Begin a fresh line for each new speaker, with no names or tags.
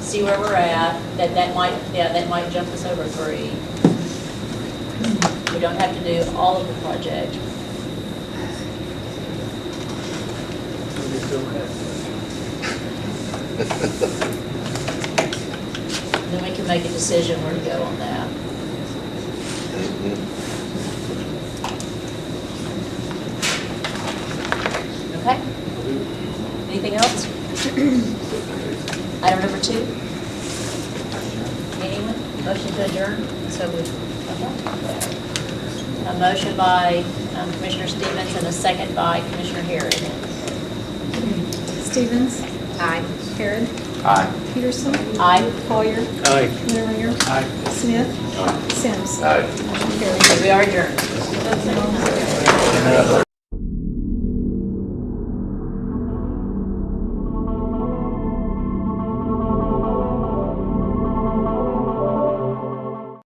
see where we're at, that that might, yeah, that might jump us over three. We don't have to do all of the project. Then we can make a decision where to go on that. Okay? Anything else? Item number two? Anyone? Motion to adjourn? So we, a motion by um, Commissioner Stevens and a second by Commissioner Harris.
Stevens? Aye. Harrod?
Aye.
Peterson?
Aye.
Collier?
Aye.
Lineringer?
Aye.
Smith? Sims?
Aye.
Motion carried.
So we are adjourned.